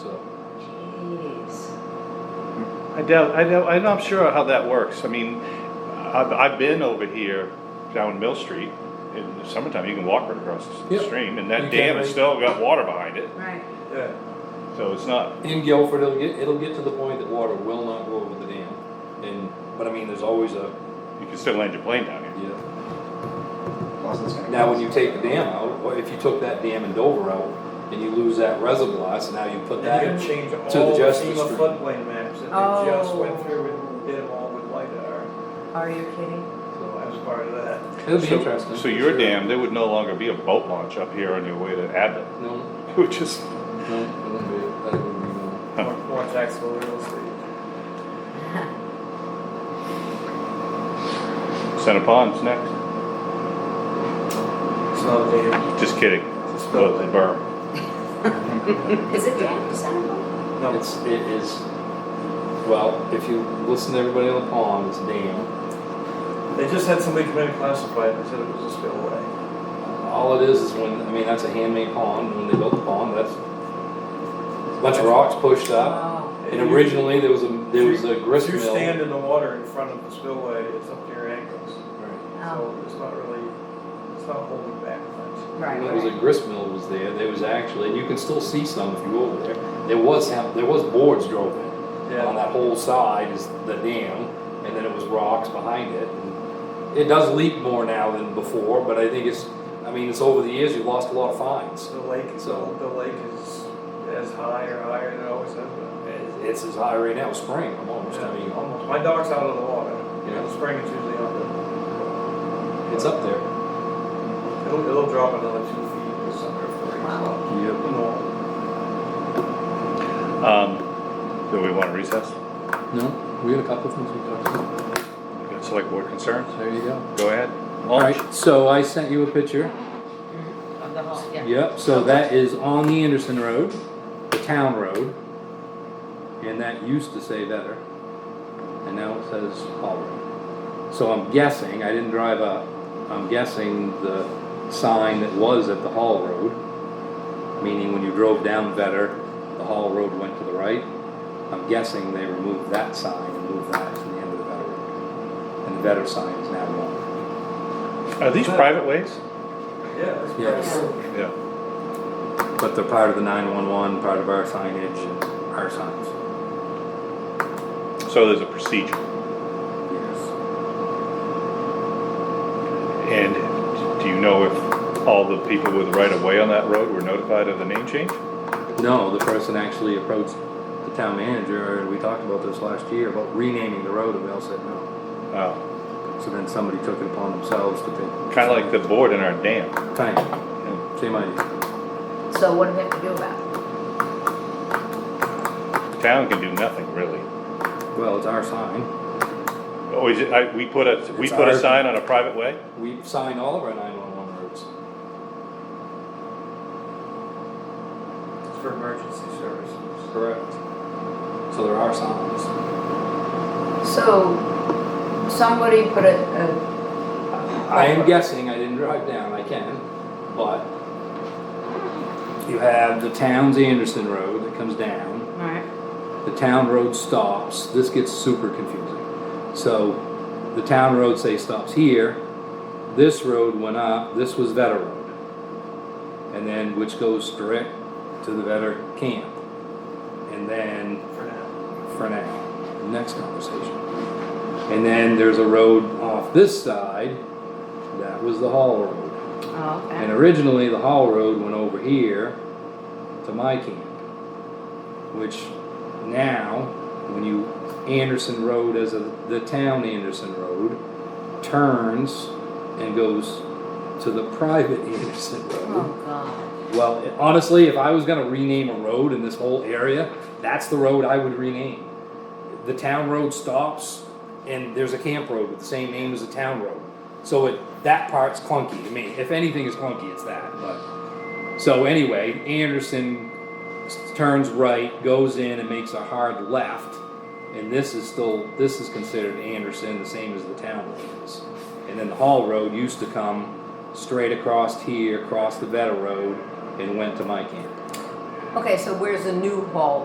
I doubt, I doubt, I'm not sure how that works. I mean, I've, I've been over here down Mill Street in the summertime, you can walk right across the Yep. stream and You that can, dam has right? still got water behind it, Right. Yeah. so it's not, In Guilford, it'll get, it'll get to the point that water will not go over the dam. And, but I mean, there's always a, you can still land your plane down here. you know, Plus it's gonna Now, when cost. you take the dam out, or if you took that dam in Dover out, and you lose that reservoir, so now you put They're gonna that. change all to the the Justice FEMA Street. floodplain maps that they just went Oh. through and did them all with LiDAR, Are you kidding? so I was part of that. It'll be So- interesting. So your dam, there would no longer be a boat launch up here on your way to Abbott, No, which is, no, it wouldn't be, that wouldn't be, no. More- More taxable real estate. Center Pond's next. So they, Just kidding, Just Well, built the it. berm. Is it Dan Santa? no, It's, it is, well, if you listen to everybody on the pond, it's dam. they just had somebody come in and classify it, and said it was a spillway. All it is is when, I mean, that's a handmade pond, when they built the pond, that's a bunch of rocks pushed up. Oh, And originally, there was a, there was a grist If you mill. stand in the water in front of the spillway, it's up to your ankles, Right. so it's not really, it's not holding back much. right, When it was a right. grist mill was there, there was actually, and you can still see some if you go over there, there was, hap- there was boards drove in. On Yeah, that whole side is the dam, and then it was rocks behind it. and It does leak more now than before, but I think it's, I mean, it's over the years, you've lost a lot of fines. the lake, the So- the lake is as high or higher than it always has been. It- It's as high right now, spring almost, I Yeah, mean, almost. My dog's out of the water. Yeah. The spring is usually on it's up there. it. It'll, it'll drop another two feet this summer if the rain's Wow. not. No. Um, do we want to recess? No, we had a couple of things we talked about, We got Select board concerns, there you go. go ahead. All Launch. right, so I sent you a picture. Of the whole, yeah. Yep, so that is on the Anderson Road, the town road. And that used to say Vetter. And now it says Hall Road. So I'm guessing, I didn't drive up, I'm guessing the sign that was at the Hall Road, meaning when you drove down Vetter, the Hall Road went to the right. I'm guessing they removed that sign and moved that to the end of the Vetter Road. And the Vetter sign is now gone. Are these private ways? Yeah, it's Yes. pretty Yeah. But they're part of the 911, part of our signage, and our signs. So there's a procedure. And do you know if all the people with right of way on that road were notified of the name change? No, the person actually approached the town manager, and we talked about this last year, about renaming the road, and they all said no. Oh, So then somebody took it upon themselves to pick. kind of like the board in our dam. Kind of, same idea. So what do we have to do about it? Town can do nothing really. Well, it's our sign. Oh, is it, I, we put a, we It's put a our- sign on a private way? We've signed all of our 911 roads. close. It's for emergency services. Correct. So there are signs. So, somebody put a, a, I am guessing, I didn't drive down, I can, but you have the town's Anderson Road that comes down. alright, the town road stops, this gets super confusing. So the town road, say, stops here, this road went up, this was Vetter Road. And then, which goes direct to the Vetter camp. And then For now. for now. Next conversation. And then there's a road off this side, that was the Hall Road. oh, okay. And originally, the Hall Road went over here to my camp, which now, when you Anderson Road as a, the town Anderson Road, turns and goes to the private Anderson Road. Oh, God. Well, it- honestly, if I was gonna rename a road in this whole area, that's the road I would rename. The town road stops, and there's a camp road with the same name as the town road. So it, that part's clunky to me. If anything is clunky, it's that, but. So anyway, Anderson s- turns right, goes in and makes a hard left. And this is still, this is considered Anderson, the same as the town road is. And then the Hall Road used to come straight across here, across the Vetter Road, and went to my camp. Okay, so where's the new hall